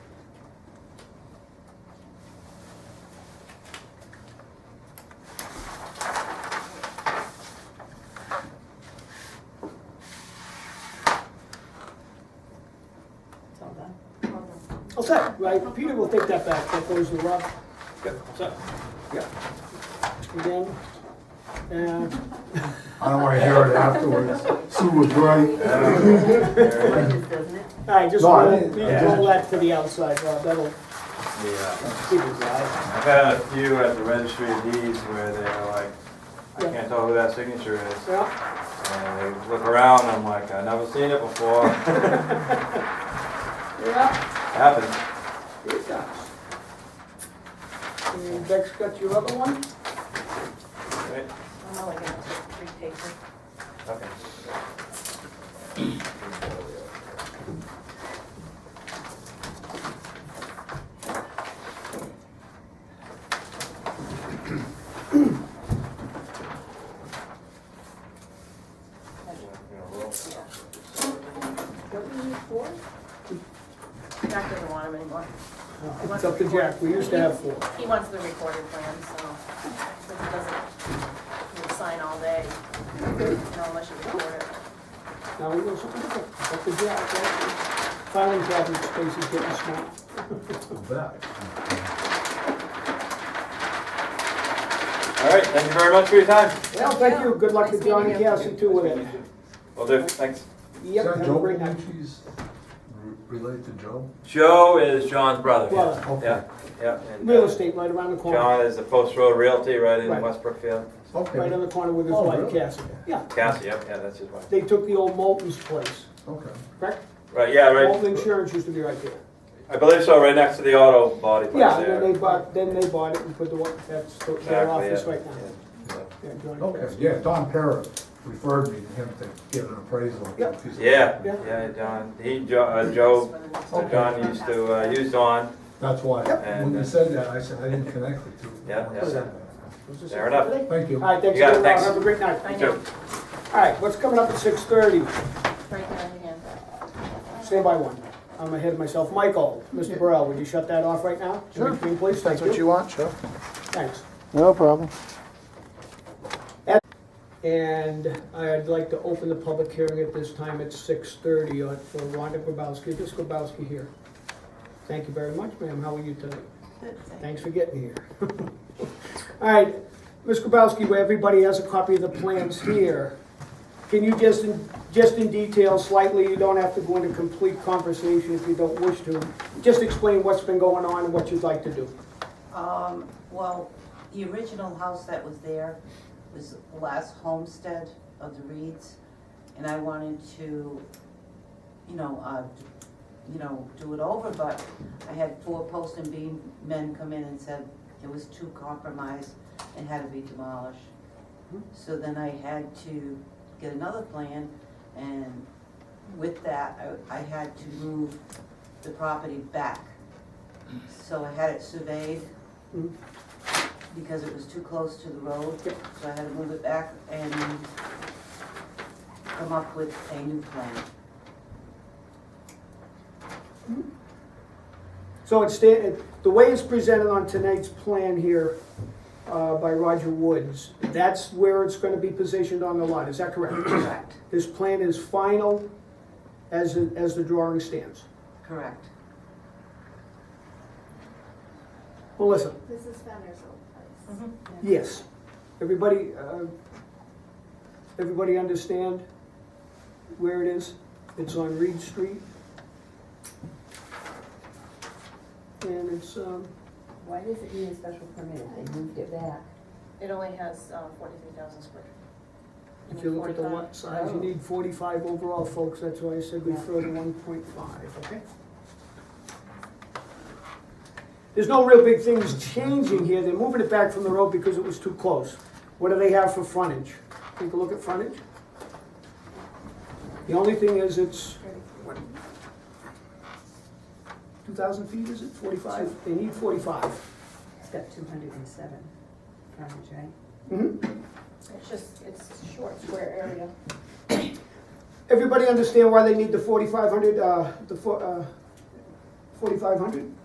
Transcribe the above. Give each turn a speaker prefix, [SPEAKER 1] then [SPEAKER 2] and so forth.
[SPEAKER 1] All set, right, Peter will take that back, that goes to Rob,
[SPEAKER 2] Yep,
[SPEAKER 1] set,
[SPEAKER 2] yep.
[SPEAKER 1] again. And,
[SPEAKER 3] I don't want to hear it afterwards. Sue was right.
[SPEAKER 4] Gorgeous, doesn't it?
[SPEAKER 1] all right, just
[SPEAKER 3] No, I
[SPEAKER 1] roll,
[SPEAKER 3] didn't-
[SPEAKER 1] we
[SPEAKER 3] I
[SPEAKER 1] can
[SPEAKER 3] didn't.
[SPEAKER 1] roll that to the outside, Rob, that'll
[SPEAKER 5] Yeah,
[SPEAKER 1] keep us out.
[SPEAKER 5] uh, I've had a few at the registry of deeds where they're like, I can't tell who that signature is.
[SPEAKER 1] Yeah,
[SPEAKER 5] And they look around, I'm like, I've never seen it before.
[SPEAKER 1] yeah,
[SPEAKER 5] Happens.
[SPEAKER 1] it does. And Beck's got your other one?
[SPEAKER 5] Right?
[SPEAKER 4] I'm only gonna take three papers.
[SPEAKER 5] Okay.
[SPEAKER 4] Don't you need four? Jack doesn't want them anymore.
[SPEAKER 1] It's up to Jack, we used to have four.
[SPEAKER 4] He wants the recorded plan, so, so he doesn't, he'll sign all day, not unless you record it.
[SPEAKER 1] Now we go something different, It's up to Jack, right? Filing cabinet space is getting small.
[SPEAKER 5] All right, thank you very much for your time.
[SPEAKER 1] Well, thank you, good luck to
[SPEAKER 4] Nice meeting
[SPEAKER 1] John and
[SPEAKER 4] you.
[SPEAKER 1] Cassie too with it.
[SPEAKER 5] Well, do, thanks.
[SPEAKER 1] Yep, have a great night.
[SPEAKER 3] She's related to Joe?
[SPEAKER 5] Joe is John's brother.
[SPEAKER 1] Brother.
[SPEAKER 5] Yeah, yeah. and, uh,
[SPEAKER 1] Real estate right around the corner,
[SPEAKER 5] John is the Post Road Realty right in
[SPEAKER 1] Right.
[SPEAKER 5] West Brookfield.
[SPEAKER 1] right
[SPEAKER 3] Okay,
[SPEAKER 1] on the corner with his
[SPEAKER 3] Oh,
[SPEAKER 1] wife
[SPEAKER 3] really?
[SPEAKER 1] Cassie. Yeah,
[SPEAKER 5] Cassie, yep, yeah, that's his wife.
[SPEAKER 1] they took the old Moulton's place,
[SPEAKER 3] okay.
[SPEAKER 1] correct?
[SPEAKER 5] Right, yeah,
[SPEAKER 1] Moulton
[SPEAKER 5] right.
[SPEAKER 1] Insurance used to be right there.
[SPEAKER 5] I believe so, right next to the auto body place
[SPEAKER 1] Yeah, and then
[SPEAKER 5] there.
[SPEAKER 1] they bought, then they bought it and put the, one- that's the- their
[SPEAKER 5] Exactly, yeah,
[SPEAKER 1] office right now.
[SPEAKER 5] yeah, yeah.
[SPEAKER 1] Yeah, John and
[SPEAKER 3] Okay,
[SPEAKER 1] Cassie.
[SPEAKER 3] yeah, Don Parra referred me to him to get an appraisal.
[SPEAKER 1] Yep.
[SPEAKER 5] Yeah,
[SPEAKER 1] Yeah.
[SPEAKER 5] yeah, John, he, Jo- uh, Joe,
[SPEAKER 3] Okay.
[SPEAKER 5] John used to, uh, use Dawn,
[SPEAKER 3] That's why,
[SPEAKER 5] Yep.
[SPEAKER 3] when you said that, I said, I didn't connect the two.
[SPEAKER 5] Yeah, uh, yeah.
[SPEAKER 3] Said that.
[SPEAKER 1] Was this
[SPEAKER 5] Fair
[SPEAKER 1] it?
[SPEAKER 5] enough.
[SPEAKER 3] Thank you.
[SPEAKER 1] All right, thanks,
[SPEAKER 5] You got
[SPEAKER 1] everyone.
[SPEAKER 5] it, thanks.
[SPEAKER 1] have a great night.
[SPEAKER 4] I know,
[SPEAKER 5] Joe.
[SPEAKER 1] All right, what's coming up at six thirty?
[SPEAKER 4] right there again.
[SPEAKER 1] Stand by one. I'm ahead of myself. Michael, Mr. Burrell, would you shut that off right now? In
[SPEAKER 6] Sure.
[SPEAKER 1] between, please, thank
[SPEAKER 6] That's what you
[SPEAKER 1] you.
[SPEAKER 6] want, sure.
[SPEAKER 1] Thanks.
[SPEAKER 6] No problem.
[SPEAKER 1] And I'd like to open the public hearing at this time at six thirty on, for Rhonda Grabowski. Is Grabowski here? Thank you very much, ma'am. How are you tonight? Thanks for getting here. All right, Ms. Grabowski, where everybody has a copy of the plans here, can you just, in- just in detail slightly, you don't have to go into complete conversation if you don't wish to, just explain what's been going on and what you'd like to do.
[SPEAKER 7] Um, well, the original house that was there was the last homestead of the Reeds, and I wanted to, you know, uh, you know, do it over, but I had four post and beam men come in and said it was too compromised and had to be demolished. So then I had to get another plan, and with that, I, I had to move the property back. So I had it surveyed
[SPEAKER 1] Mhm.
[SPEAKER 7] because it was too close to the road,
[SPEAKER 1] Yep.
[SPEAKER 7] so I had to move it back and come up with a new plan.
[SPEAKER 1] So it's, sta- it- the way it's presented on tonight's plan here uh, by Roger Woods, that's where it's gonna be positioned on the lot, is that correct?
[SPEAKER 7] Correct,
[SPEAKER 1] This plan is final as, it- as the drawing stands.
[SPEAKER 7] correct.
[SPEAKER 1] Melissa?
[SPEAKER 8] This is Fenner's old place.
[SPEAKER 1] Yes. Everybody, uh, everybody understand where it is? It's on Reed Street. And it's, um,
[SPEAKER 9] Why does it need a special permit if they moved it back?
[SPEAKER 4] It only has, um, forty-three thousand square. You
[SPEAKER 1] If you
[SPEAKER 4] need
[SPEAKER 1] look at the
[SPEAKER 4] 45?
[SPEAKER 1] lot size,
[SPEAKER 9] Oh.
[SPEAKER 1] you need forty-five overall, folks, that's why I said we throw the one point five, okay? There's no real big things changing here, they're moving it back from the road because it was too close. What do they have for frontage? Take a look at frontage. The only thing is it's, what? Two thousand feet, is it, forty-five? They need forty-five.
[SPEAKER 9] It's got two hundred and seven frontage, right?
[SPEAKER 1] Mhm.
[SPEAKER 4] It's just, it's short square area.
[SPEAKER 1] Everybody understand why they need the forty-five hundred, uh, the four, uh, forty-five hundred?